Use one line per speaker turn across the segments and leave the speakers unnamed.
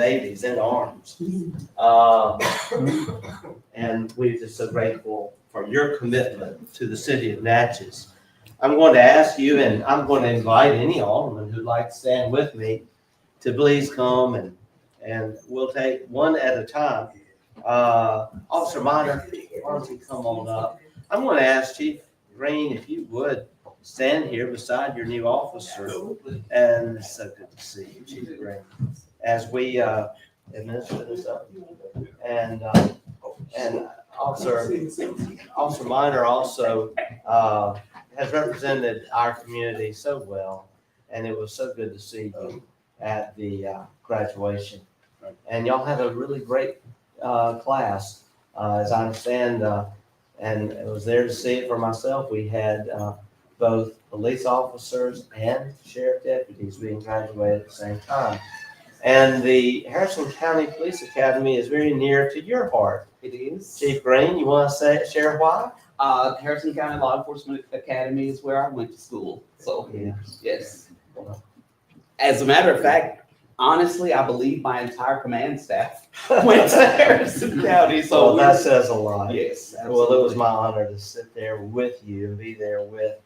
babies in arms. Um, And we're just so grateful for your commitment to the city of Natchez. I'm going to ask you, and I'm going to invite any alderman who'd like to stand with me to please come and, and we'll take one at a time. Uh, Officer Minor, why don't you come on up? I'm going to ask Chief Green if you would stand here beside your new officer. And it's so good to see you, Chief Green. As we uh, administer this up, and, uh, and Officer, Officer Minor also uh, has represented our community so well, and it was so good to see you at the uh, graduation. And y'all had a really great uh, class, uh, as I understand, uh, and I was there to see it for myself. We had uh, both police officers and sheriff deputies being graduated at the same time. And the Harrison County Police Academy is very near to your heart.
It is.
Chief Green, you want to say, share why?
Uh, Harrison County Law Enforcement Academy is where I went to school. So,
Yeah.
yes. As a matter of fact, honestly, I believe my entire command staff went to Harrison County. So,
So that says a lot.
yes.
Well, it was
absolutely.
my honor to sit there with you and be there with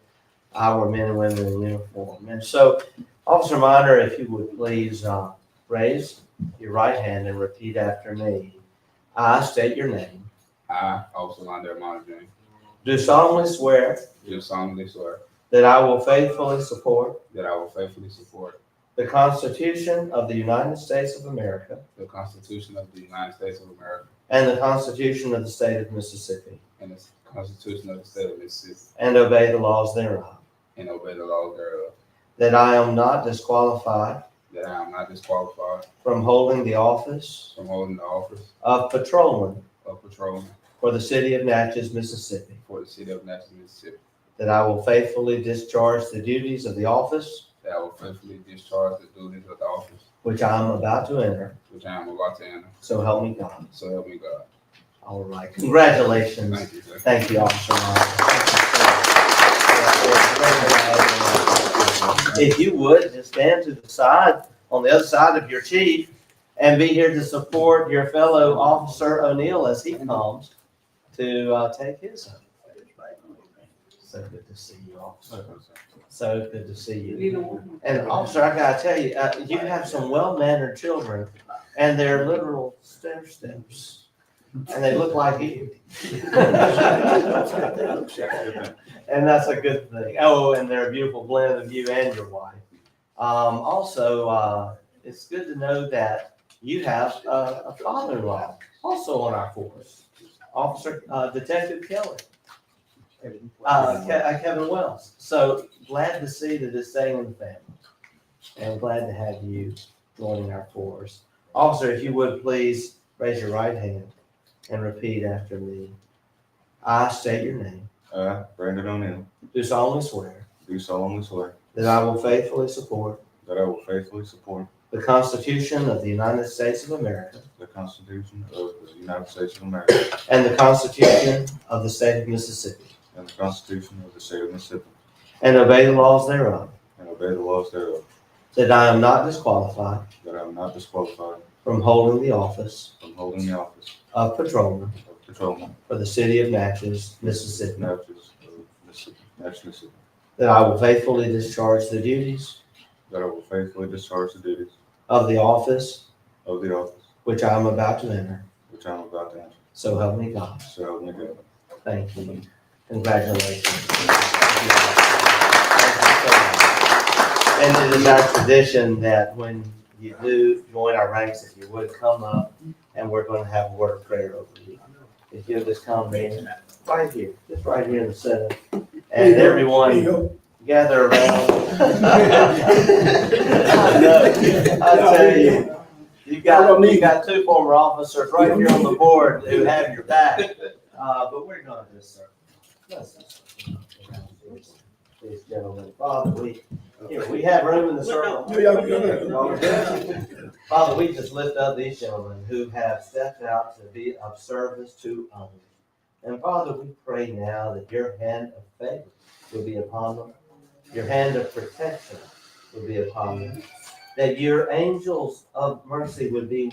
our men and women in uniform. And so, Officer Minor, if you would please uh, raise your right hand and repeat after me. I state your name.
I, Officer Londell Monitoring,
Do solemnly swear
do solemnly swear
that I will faithfully support
that I will faithfully support
the Constitution of the United States of America
the Constitution of the United States of America
and the Constitution of the State of Mississippi,
and the Constitution of the State of Mississippi,
and obey the laws thereof.
and obey the laws thereof,
That I am not disqualified
that I am not disqualified
from holding the office
from holding the office
of patrolman
of patrolman
for the city of Natchez, Mississippi,
for the city of Nashville, Mississippi,
that I will faithfully discharge the duties of the office
that I will faithfully discharge the duties of the office
which I am about to enter.
which I am about to enter,
So help me God.
so help me God.
All right. Congratulations.
Thank you, sir.
Thank you, Officer Myers. If you would, just stand to the side, on the other side of your chief, and be here to support your fellow Officer O'Neill as he comes to uh, take his oath. So good to see you, Officer. So good to see you. And Officer, I gotta tell you, uh, you have some well-mannered children, and they're literal stair steps, and they look like you. And that's a good thing. Oh, and they're a beautiful blend of you and your wife. Um, also, uh, it's good to know that you have uh, a, a father-in-law also on our force, Officer, uh, Detective Kelly, uh, Ke- uh, Kevin Wells. So glad to see that it's staying in the family. And glad to have you joining our force. Officer, if you would please raise your right hand and repeat after me. I state your name.
I, Brandon O'Neill,
Do solemnly swear
do solemnly swear
that I will faithfully support
that I will faithfully support
the Constitution of the United States of America
the Constitution of the United States of America
and the Constitution of the State of Mississippi,
and the Constitution of the State of Mississippi,
and obey the laws thereof,
and obey the laws thereof,
that I am not disqualified
that I am not disqualified
from holding the office
from holding the office
of patrolman
of patrolman
for the city of Natchez,
in
Mississippi,
Natchez, of Mississippi, Natchez, Mississippi,
that I will faithfully discharge the duties
that I will faithfully discharge the duties
of the office
of the office
which I am about to enter.
which I am about to enter,
So help me God.
so help me God.
Thank you. Congratulations. And it is our tradition that when you do join our ranks, if you would come up and we're going to have a word of prayer over you. If you'll just come in, right here, just right here in the center. And everyone gather around. I know. I tell you, you got, you got two former officers right here on the board who have your back. Uh, but we're not this, sir. Let's just around these- These gentlemen, Father, we, here, we have room in the circle. Father, we just lift up these gentlemen who have stepped out to be of service to others. And Father, we pray now that your hand of favor will be upon them, your hand of protection will be upon them, that your angels of mercy would be